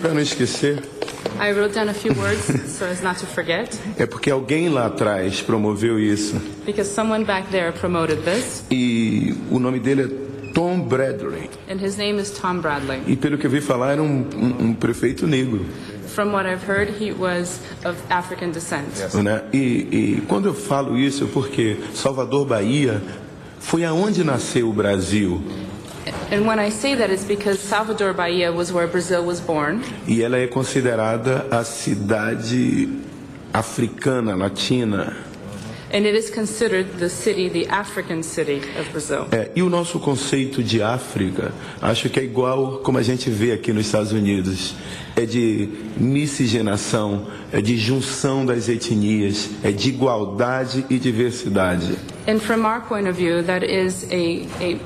Para não esquecer, I wrote down a few words so as not to forget, é porque alguém lá atrás promoveu isso. because someone back there promoted this, E o nome dele é Tom Bradley. and his name is Tom Bradley. E pelo que eu vi falar, era um, um- um prefeito negro. From what I've heard, he was of African descent. Né? E, e quando eu falo isso, é porque Salvador, Bahia, foi aonde nasceu o Brasil. And when I say that, it's because Salvador Bahia was where Brazil was born, E ela é considerada a cidade africana, latina. and it is considered the city, the African city of Brazil. É, e o nosso conceito de África, acho que é igual como a gente vê aqui nos Estados Unidos. É de miscigenação, é de junção das etnias, é de igualdade e diversidade. And from our point of view, that is a, a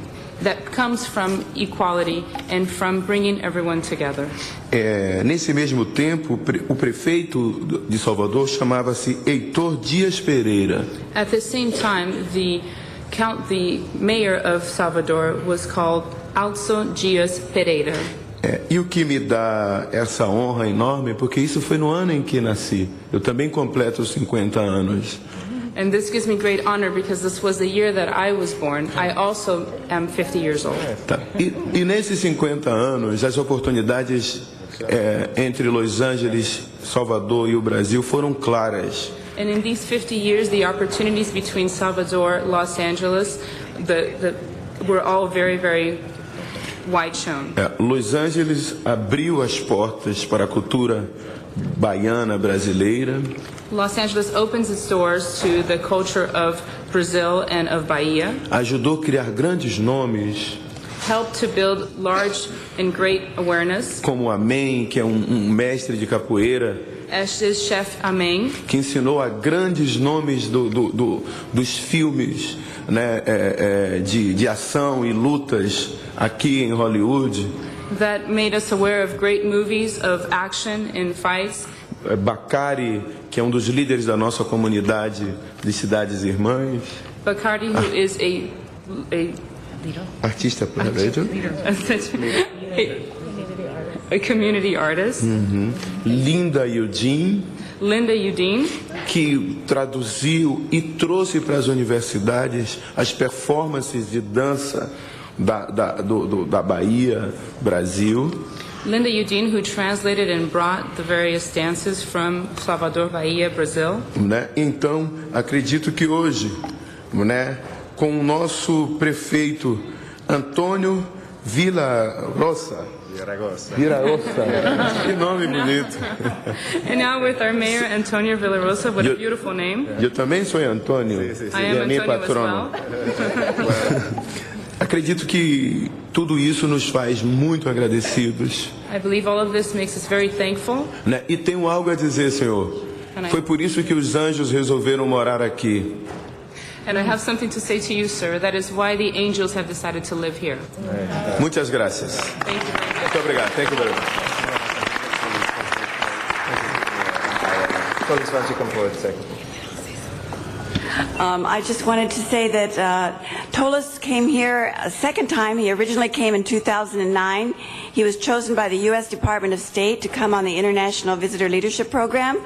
that comes from equality and from bringing everyone together. É, nesse mesmo tempo, o pre- o prefeito de Salvador chamava-se Heitor Dias Pereira. At the same time, the count, the mayor of Salvador was called Alzo Dias Pereira. É, e o que me dá essa honra enorme, porque isso foi no ano em que nasci. Eu também completo os 50 anos. And this gives me great honor because this was the year that I was born. I also am 50 years old. Tá. E, e nesses 50 anos, as oportunidades é, entre Los Angeles, Salvador e o Brasil foram claras. And in these 50 years, the opportunities between Salvador, Los Angeles, the, the, were all very, very wide shown. É, Los Angeles abriu as portas para a cultura baiana brasileira Los Angeles opens its doors to the culture of Brazil and of Bahia. ajudou a criar grandes nomes helped to build large and great awareness, como Amém, que é um, um mestre de capoeira as is Chef Ameng, que ensinou a grandes nomes do- do- do- dos filmes né, é, é, de, de ação e lutas aqui em Hollywood. that made us aware of great movies of action and fights. É, Bacari, que é um dos líderes da nossa comunidade de cidades irmãs, Bacardi, who is a, a, artista brasileiro, a, such- a, a community artist, Linda Yudin, Linda Udine, que traduziu e trouxe para as universidades as performances de dança da, da, do- do- da Bahia, Brasil, Linda Udine, who translated and brought the various dances from Salvador Bahia, Brazil. né? Então, acredito que hoje, né, com o nosso prefeito Antônio Vila Roça, Virarossa. Que nome bonito. And now with our mayor, Antonio Villarosa, what a You- beautiful name. Eu também sou Antônio. I E am a minha Antonio as patrona. well. Acredito que tudo isso nos faz muito agradecidos. I believe all of this makes us very thankful. Né? E tenho algo a dizer, Senhor. Amém. Foi por isso que os anjos resolveram morar aqui. And I have something to say to you, sir. That is why the angels have decided to live here. Muitas graças. Thank you very much. Muito obrigado. Thank you very much. Colleagues, why don't you come forward a second? Um, I just wanted to say that uh, Tolis came here a second time. He originally came in 2009. He was chosen by the U.S. Department of State to come on the International Visitor Leadership Program,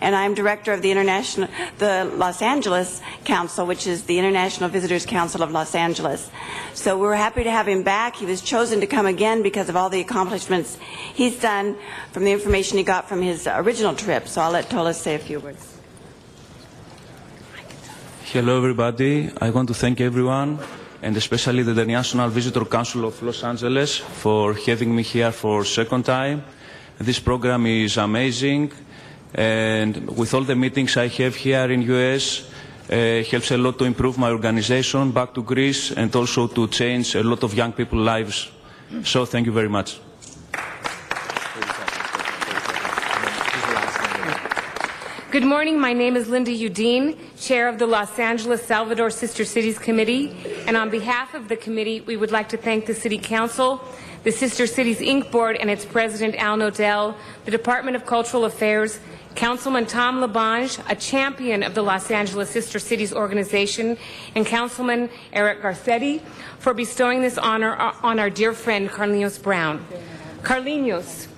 and I'm director of the International, the Los Angeles Council, which is the International Visitors Council of Los Angeles. So we're happy to have him back. He was chosen to come again because of all the accomplishments he's done from the information he got from his original trip. So I'll let Tolis say a few words. Hello, everybody. I want to thank everyone, and especially the National Visitor Council of Los Angeles, for having me here for second time. This program is amazing, and with all the meetings I have here in US, uh, helps a lot to improve my organization back to Greece and also to change a lot of young people's lives. So thank you very much. Good morning. My name is Linda Udine, Chair of the Los Angeles Salvador Sister Cities Committee. And on behalf of the committee, we would like to thank the City Council, the Sister Cities Inc. Board and its President Al Nodell, the Department of Cultural Affairs, Councilman Tom Labange, a champion of the Los Angeles Sister Cities organization, and Councilman Eric Garcetti uh, for bestowing this honor on our dear friend Carlinhos Brown. Carlinhos,